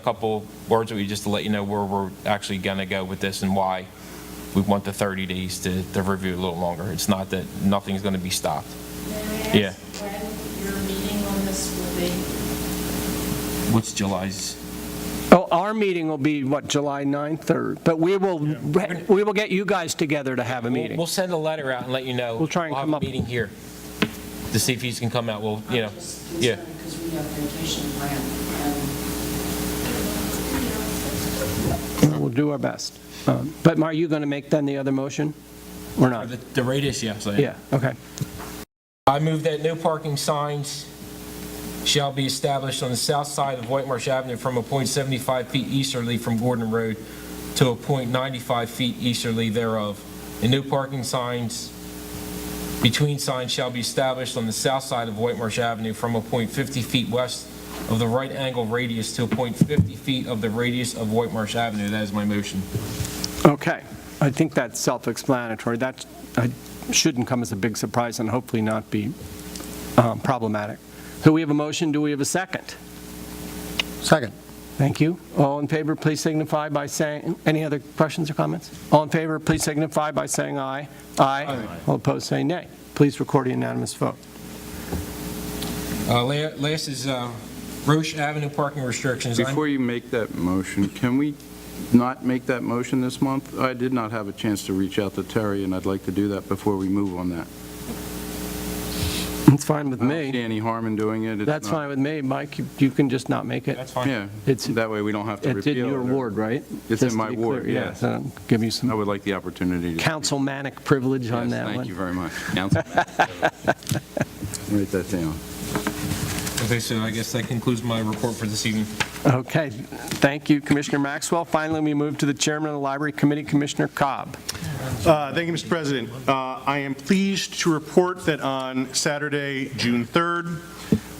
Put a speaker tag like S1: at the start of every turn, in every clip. S1: A Couple words with you just to let you know where we're actually going to go with this and why we want the 30 days to, to review it a little longer. It's not that nothing's going to be stopped.
S2: May I
S1: Yeah.
S2: ask when your meeting on this will be?
S1: What's July's?
S3: Oh, our meeting will be, what, July 9th, or, but we will, we will get you guys together to have a
S1: We'll,
S3: meeting.
S1: we'll send a letter out and let you know.
S3: We'll try and come up-
S1: We'll have a meeting here to see if he's can come out. We'll, you know,
S4: I'm just
S1: yeah.
S4: concerned because we have vacation planned,
S3: We'll do our best. Um, But are you going to make then the other motion, or not?
S1: The, the radius, yes, I am.
S3: Yeah, okay.
S1: I move that no parking signs shall be established on the south side of White Marsh Avenue from a point 75 feet easterly from Gordon Road to a point 95 feet easterly thereof, and no parking signs between signs shall be established on the south side of White Marsh Avenue from a point 50 feet west of the right angle radius to a point 50 feet of the radius of White Marsh Avenue. That is my motion.
S3: Okay, I think that's self-explanatory. That uh, shouldn't come as a big surprise and hopefully not be um, problematic. So we have a motion, do we have a second?
S5: Second.
S3: Thank you. All in favor, please signify by saying, any other questions or comments? All in favor, please signify by saying aye. Aye. All opposed, say nay. Please record a unanimous vote.
S1: Uh, la- Last is uh, Roche Avenue parking restrictions. I-
S6: Before you make that motion, can we not make that motion this month? I did not have a chance to reach out to Terry, and I'd like to do that before we move on that.
S3: It's fine with
S6: I don't see
S3: me.
S6: any harm in doing it. It's
S3: That's
S6: not-
S3: fine with me, Mike. you- You can just not make it.
S1: That's fine.
S6: Yeah,
S3: It's-
S6: that way we don't have to
S3: It's
S6: repeal it.
S3: in your
S6: or-
S3: ward, right?
S6: It's
S3: Just
S6: in
S3: to
S6: my
S3: be clear,
S6: ward,
S3: Yeah,
S6: yes.
S3: so give you
S6: I
S3: some
S6: would like the opportunity to...
S3: councilmanic privilege on
S6: Yes,
S3: that one.
S6: Thank you very much. Councilman. Write that down.
S1: Okay, so I guess that concludes my report for this evening.
S3: Okay, thank you, Commissioner Maxwell. Finally, we move to the Chairman of the Library Committee, Commissioner Cobb.
S7: Uh, Thank you, Mr. President. Uh, I am pleased to report that on Saturday, June 3rd,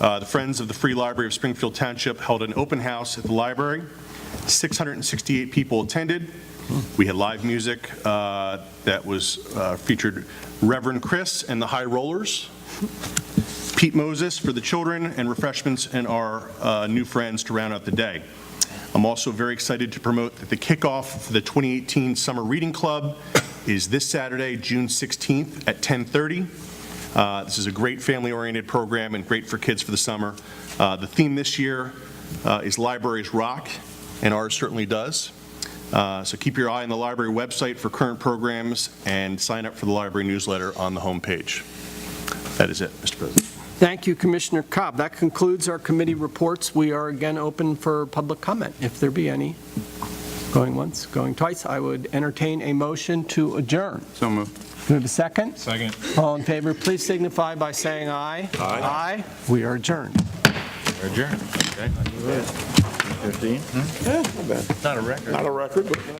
S7: uh, the Friends of the Free Library of Springfield Township held an open house at the library. 668 people attended. We had live music uh, that was uh, featured Reverend Chris and the High Rollers, Pete Moses for the children, and refreshments and our uh, new friends to round out the day. I'm also very excited to promote that the kickoff for the 2018 Summer Reading Club is this Saturday, June 16th at 10:30. Uh, This is a great family-oriented program and great for kids for the summer. Uh, The theme this year uh, is Libraries Rock, and ours certainly does. Uh, So keep your eye on the library website for current programs and sign up for the library newsletter on the homepage. That is it, Mr. President.
S3: Thank you, Commissioner Cobb. That concludes our committee reports. We are again open for public comment, if there be any. Going once, going twice, I would entertain a motion to adjourn.
S6: So moved.
S3: Do we have a second?
S1: Second.
S3: All in favor, please signify by saying aye. Aye. Aye, we are adjourned.
S5: Not a record, but.